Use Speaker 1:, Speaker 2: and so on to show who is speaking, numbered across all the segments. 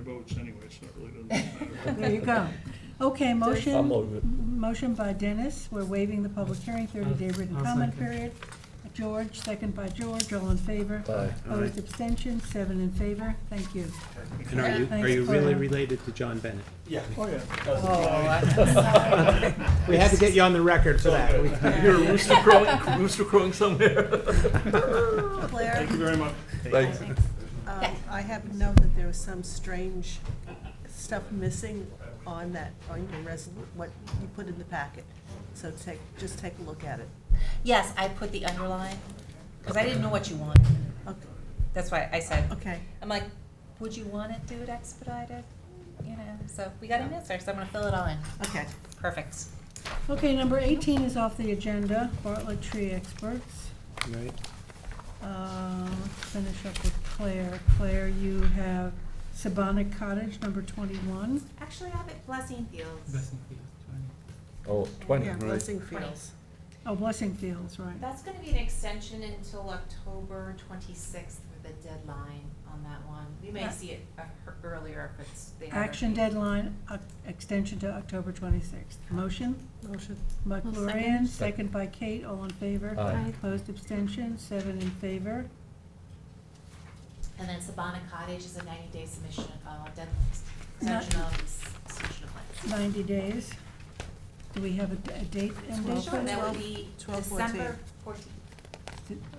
Speaker 1: votes anyway, so it really doesn't matter.
Speaker 2: There you go. Okay,
Speaker 3: I'm
Speaker 2: motion,
Speaker 3: over it.
Speaker 2: motion by Dennis, we're waiving the public hearing, thirty-day written
Speaker 4: I'll
Speaker 2: comment
Speaker 4: second.
Speaker 2: period. George, second by George, all in favor?
Speaker 3: Aye.
Speaker 2: Opposed, abstentions, seven in favor, thank you.
Speaker 4: And are you, are
Speaker 2: Thanks
Speaker 4: you
Speaker 2: for-
Speaker 4: really related to John Bennett?
Speaker 1: Yeah. Oh, yeah.
Speaker 4: Oh, We had to get you on the record for that. We-
Speaker 3: You're a rooster crowing, rooster crowing somewhere.
Speaker 5: Claire,
Speaker 1: Thank you very much.
Speaker 3: Thanks.
Speaker 5: um, I happen to know that there was some strange stuff missing on that, on your res, what you put in the packet. So take, just take a look at it.
Speaker 6: Yes, I put the underline, because I didn't know what you wanted.
Speaker 5: Okay.
Speaker 6: That's why I said,
Speaker 5: Okay.
Speaker 6: I'm like, would you want it dude expedited? You know, so we got an answer, so I'm gonna fill it all in.
Speaker 5: Okay.
Speaker 6: Perfect.
Speaker 2: Okay, number eighteen is off the agenda, Bartlett Tree Experts.
Speaker 4: Right.
Speaker 2: Uh, Let's finish up with Claire. Claire, you have Sabonic Cottage, number twenty-one.
Speaker 7: Actually, I have it Blessing Fields.
Speaker 4: Best in field, twenty.
Speaker 3: Oh, twenty,
Speaker 5: Yeah,
Speaker 3: right?
Speaker 5: Blessing Fields.
Speaker 2: Oh, Blessing Fields, right.
Speaker 7: That's gonna be an extension until October twenty-sixth for the deadline on that one. We may
Speaker 2: Yeah.
Speaker 7: see it uh, ear- earlier if it's the. other
Speaker 2: Action
Speaker 7: week.
Speaker 2: deadline, uh, extension to October twenty-sixth. Motion?
Speaker 5: Motion.
Speaker 2: By
Speaker 8: I'll
Speaker 2: Gloria,
Speaker 8: second.
Speaker 2: second by Kate, all in favor?
Speaker 3: Aye.
Speaker 8: Aye.
Speaker 2: Opposed, abstention, seven in favor.
Speaker 7: And then Sabana Cottage is a ninety-day submission, uh, deadline,
Speaker 2: Not-
Speaker 7: extension of, s- submission of plans.
Speaker 2: Ninety days. Do we have a d- a date and date?
Speaker 5: Twelve.
Speaker 2: for
Speaker 7: Sure,
Speaker 2: it?
Speaker 7: that
Speaker 5: Twelve-
Speaker 7: would be
Speaker 5: twelve fourteen.
Speaker 7: December fourteenth.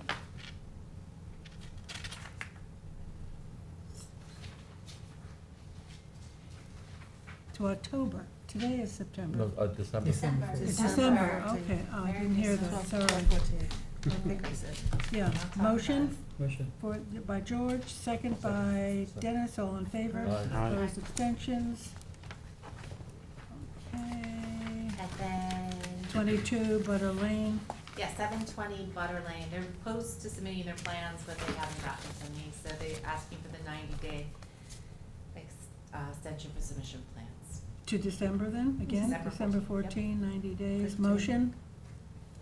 Speaker 2: To October. Today is September.
Speaker 3: No, uh, December.
Speaker 7: December.
Speaker 2: It's
Speaker 7: December.
Speaker 2: December, okay. Oh, I
Speaker 7: Very
Speaker 2: didn't hear that,
Speaker 7: December.
Speaker 2: sorry.
Speaker 5: I think I said.
Speaker 2: Yeah,
Speaker 7: I'll talk about
Speaker 2: motion
Speaker 7: it.
Speaker 4: Motion.
Speaker 2: for, by George, second by Dennis, all in favor?
Speaker 3: Aye.
Speaker 4: Aye.
Speaker 2: Opposed, abstentions? Okay.
Speaker 7: And then.
Speaker 2: Twenty-two Butter Lane.
Speaker 7: Yeah, seven twenty Butter Lane, they're close to submitting their plans, but they haven't gotten them from me, so they're asking for the ninety day ex- uh, extension for submission plans.
Speaker 2: To December then, again,
Speaker 7: December
Speaker 2: December 14,
Speaker 7: 14,
Speaker 2: 90 days.
Speaker 5: Fifteen.
Speaker 2: Motion,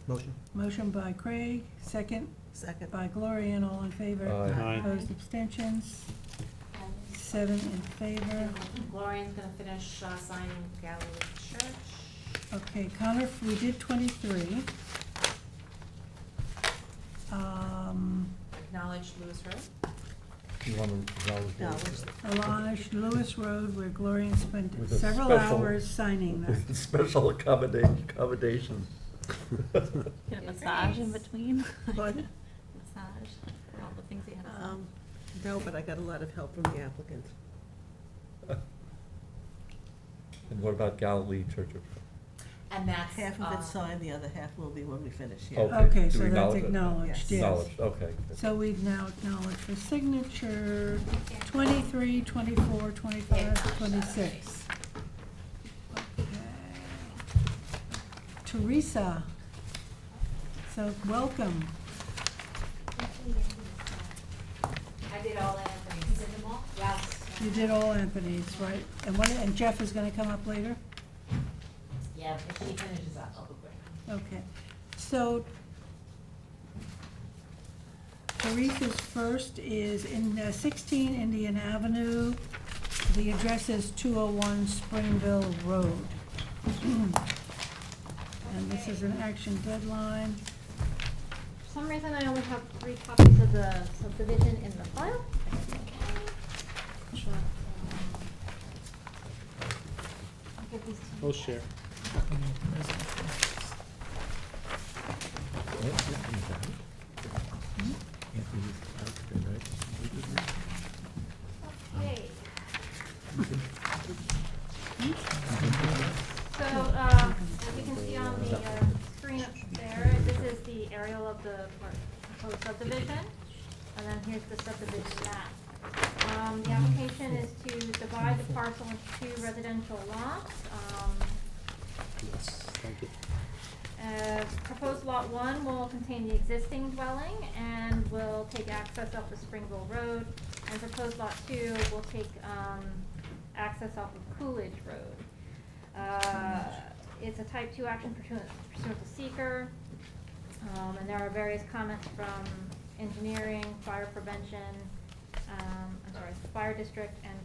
Speaker 4: Motion.
Speaker 2: motion by Craig, second
Speaker 5: Second.
Speaker 2: by Gloria, and all in favor.
Speaker 3: Aye.
Speaker 4: Aye.
Speaker 2: Opposed, abstentions, seven in favor.
Speaker 7: Gloria's gonna finish uh, signing Galilee Church.
Speaker 2: Okay, Connor, we did 23. Um,
Speaker 7: Acknowledge Lewis Road.
Speaker 3: You want to
Speaker 5: No,
Speaker 3: acknowledge
Speaker 5: which-
Speaker 3: it?
Speaker 2: Alanish Lewis Road, where Gloria spent
Speaker 3: With a
Speaker 2: several
Speaker 3: special-
Speaker 2: hours signing that.
Speaker 3: With Special accommodation, accommodation.
Speaker 8: Get a
Speaker 7: Yes.
Speaker 8: massage in between.
Speaker 5: What?
Speaker 8: Massage, for all the things he had to say.
Speaker 5: Um, No, but I got a lot of help from the applicant.
Speaker 3: And what about Galilee Church of?
Speaker 7: And that's.
Speaker 5: Half of
Speaker 7: uh,
Speaker 5: it's signed, the other half will be when we finish,
Speaker 3: Oh.
Speaker 5: yeah.
Speaker 3: Okay,
Speaker 2: Okay,
Speaker 3: do
Speaker 2: so
Speaker 3: we
Speaker 2: that's
Speaker 3: acknowledge it?
Speaker 2: acknowledged,
Speaker 5: Yes.
Speaker 2: yes.
Speaker 3: Acknowledged, okay.
Speaker 2: So we've now acknowledged for signature, 23, 24, 25, 26. Teresa, so welcome.
Speaker 7: I did all that for you. in the mall? Yes.
Speaker 2: You did all Anthony's, right? And one, and Jeff is gonna come up later?
Speaker 7: Yeah, if she finishes up, I'll be quick.
Speaker 2: Okay. So Teresa's first is in uh, 16 Indian Avenue. The address is 201 Springville Road. And this is an action deadline.
Speaker 9: For some reason, I only have three copies of the subdivision in the file. Sure. I'll give these to you.
Speaker 4: We'll share.
Speaker 2: Hmm?
Speaker 9: Okay. So, uh, as you can see on the uh, screen up there, this is the aerial of the proposed subdivision. And then here's the subdivision map. Um, The application is to divide the parcel into two residential lots. Um,
Speaker 4: Yes, thank you.
Speaker 9: uh, Proposed lot one will contain the existing dwelling and will take access off of Springville Road. And proposed lot two will take, um, access off of Coolidge Road. Uh, it's a type two action pursuant, pursuant to seeker. Um, and there are various comments from engineering, fire prevention, um, I'm sorry, fire district and